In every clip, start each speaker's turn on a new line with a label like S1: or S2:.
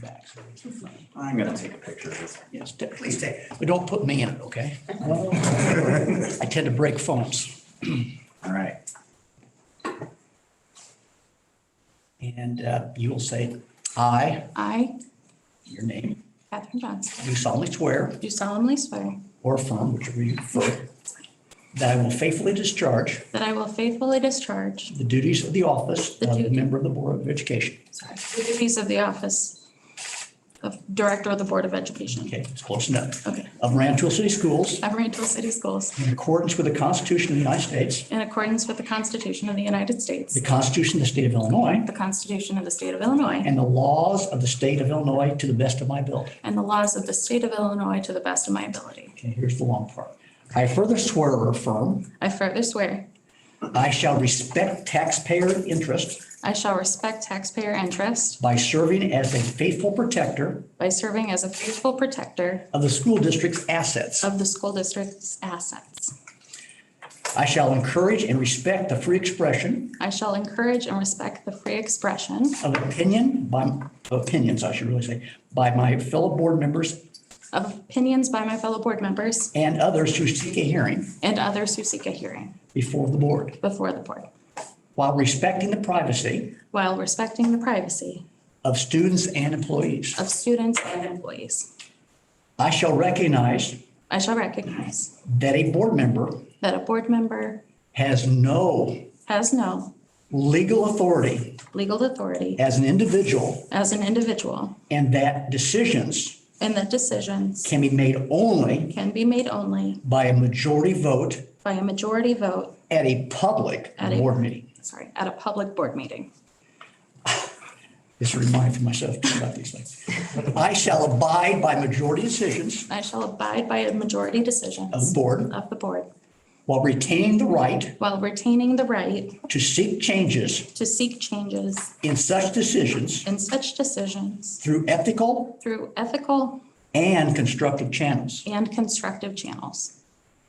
S1: back.
S2: I'm gonna take a picture of this.
S1: Yes, definitely.
S2: Please take it.
S1: But don't put me in it, okay? I tend to break phones.
S2: All right.
S1: And uh, you will say, I,
S3: I,
S1: your name,
S3: Katherine Johnson,
S1: do solemnly swear
S3: do solemnly swear
S1: or affirm, whichever you prefer, that I will faithfully discharge
S3: that I will faithfully discharge
S1: the duties of the office
S3: The
S1: of a
S3: duty-
S1: member of the Board of Education.
S3: sorry, the duties of the office of Director of the Board of Education
S1: Okay, it's close enough.
S3: Okay.
S1: Of Rantoul City Schools
S3: of Rantoul City Schools
S1: in accordance with the Constitution of the United States,
S3: in accordance with the Constitution of the United States,
S1: the Constitution of the State of Illinois,
S3: the Constitution of the State of Illinois,
S1: and the laws of the State of Illinois to the best of my ability.
S3: and the laws of the State of Illinois to the best of my ability.
S1: Okay, here's the long part. I further swear or affirm
S3: I further swear
S1: I shall respect taxpayer interest
S3: I shall respect taxpayer interest
S1: by serving as a faithful protector
S3: by serving as a faithful protector
S1: of the school district's assets.
S3: of the school district's assets.
S1: I shall encourage and respect the free expression
S3: I shall encourage and respect the free expression
S1: of opinion by, opinions, I should really say, by my fellow board members
S3: of opinions by my fellow board members
S1: and others who seek a hearing
S3: and others who seek a hearing
S1: before the board,
S3: before the board,
S1: while respecting the privacy
S3: while respecting the privacy
S1: of students and employees.
S3: of students and employees.
S1: I shall recognize
S3: I shall recognize
S1: that a board member
S3: that a board member
S1: has no
S3: has no
S1: legal authority
S3: legal authority
S1: as an individual
S3: as an individual
S1: and that decisions
S3: and that decisions
S1: can be made only
S3: can be made only
S1: by a majority vote
S3: by a majority vote,
S1: at a public
S3: At a-
S1: board meeting.
S3: sorry, at a public board meeting.
S1: Just a reminder for myself too about these things. I shall abide by majority decisions
S3: I shall abide by a majority
S1: of the
S3: decisions
S1: board
S3: of the board
S1: while retaining the right
S3: while retaining the right
S1: to seek changes
S3: to seek changes
S1: in such decisions
S3: in such decisions
S1: through ethical
S3: through ethical
S1: and constructive channels.
S3: and constructive channels.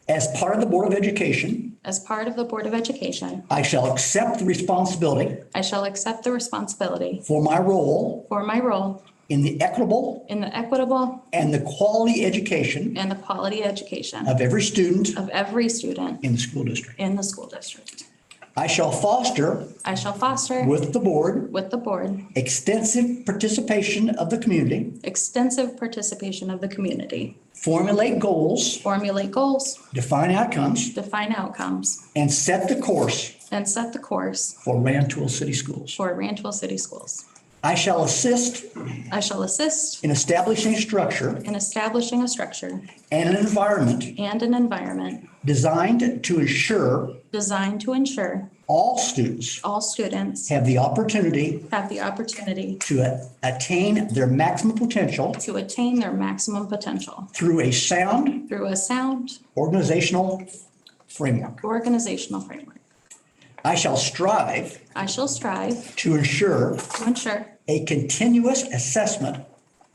S1: As part of the Board of Education,
S3: As part of the Board of Education,
S1: I shall accept the responsibility
S3: I shall accept the responsibility
S1: for my role
S3: for my role
S1: in the equitable
S3: in the equitable
S1: and the quality education
S3: and the quality education
S1: of every student
S3: of every student
S1: in the school district.
S3: in the school district.
S1: I shall foster
S3: I shall foster
S1: with the board
S3: with the board
S1: extensive participation of the community,
S3: extensive participation of the community,
S1: formulate goals,
S3: formulate goals,
S1: define outcomes,
S3: define outcomes,
S1: and set the course
S3: and set the course
S1: for Rantoul City Schools.
S3: for Rantoul City Schools.
S1: I shall assist
S3: I shall assist
S1: in establishing a structure
S3: in establishing a structure
S1: and an environment
S3: and an environment
S1: designed to ensure
S3: designed to ensure
S1: all students
S3: all students
S1: have the opportunity
S3: have the opportunity
S1: to a- attain their maximum potential
S3: to attain their maximum potential
S1: through a sound
S3: through a sound
S1: organizational framework.
S3: organizational framework.
S1: I shall strive
S3: I shall strive
S1: to ensure
S3: to ensure
S1: a continuous assessment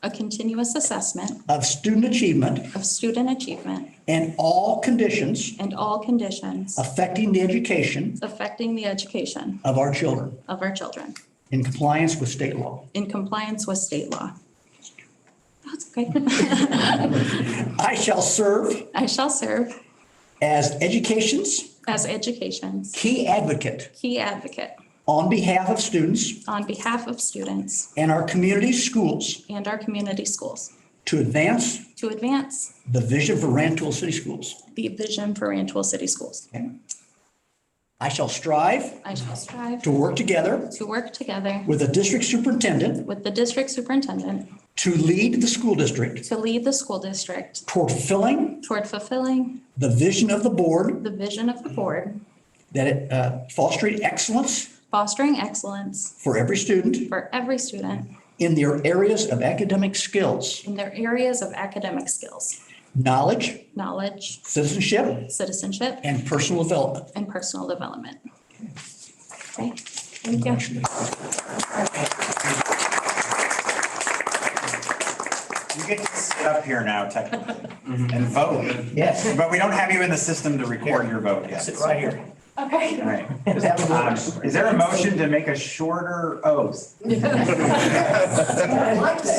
S3: a continuous assessment
S1: of student achievement
S3: of student achievement
S1: and all conditions
S3: and all conditions
S1: affecting the education
S3: affecting the education
S1: of our children
S3: of our children
S1: in compliance with state law.
S3: in compliance with state law. That's okay.
S1: I shall serve
S3: I shall serve
S1: as education's
S3: as education's
S1: key advocate
S3: key advocate
S1: on behalf of students
S3: on behalf of students
S1: and our community schools
S3: and our community schools
S1: to advance
S3: to advance
S1: the vision for Rantoul City Schools.
S3: the vision for Rantoul City Schools.
S1: I shall strive
S3: I shall strive
S1: to work together
S3: to work together
S1: with the district superintendent
S3: with the district superintendent
S1: to lead the school district
S3: to lead the school district
S1: toward fulfilling
S3: toward fulfilling
S1: the vision of the board
S3: the vision of the board,
S1: that it uh, fostering excellence
S3: fostering excellence
S1: for every student
S3: for every student
S1: in their areas of academic skills,
S3: in their areas of academic skills,
S1: knowledge,
S3: knowledge,
S1: citizenship,
S3: citizenship,
S1: and personal development.
S3: and personal development. Okay, thank you.
S2: You get to sit up here now technically and vote. Yes. But we don't have you in the system to record your vote yet.
S1: Sit right here.
S3: Okay.
S2: All right. Um, Is there a motion to make a shorter oath?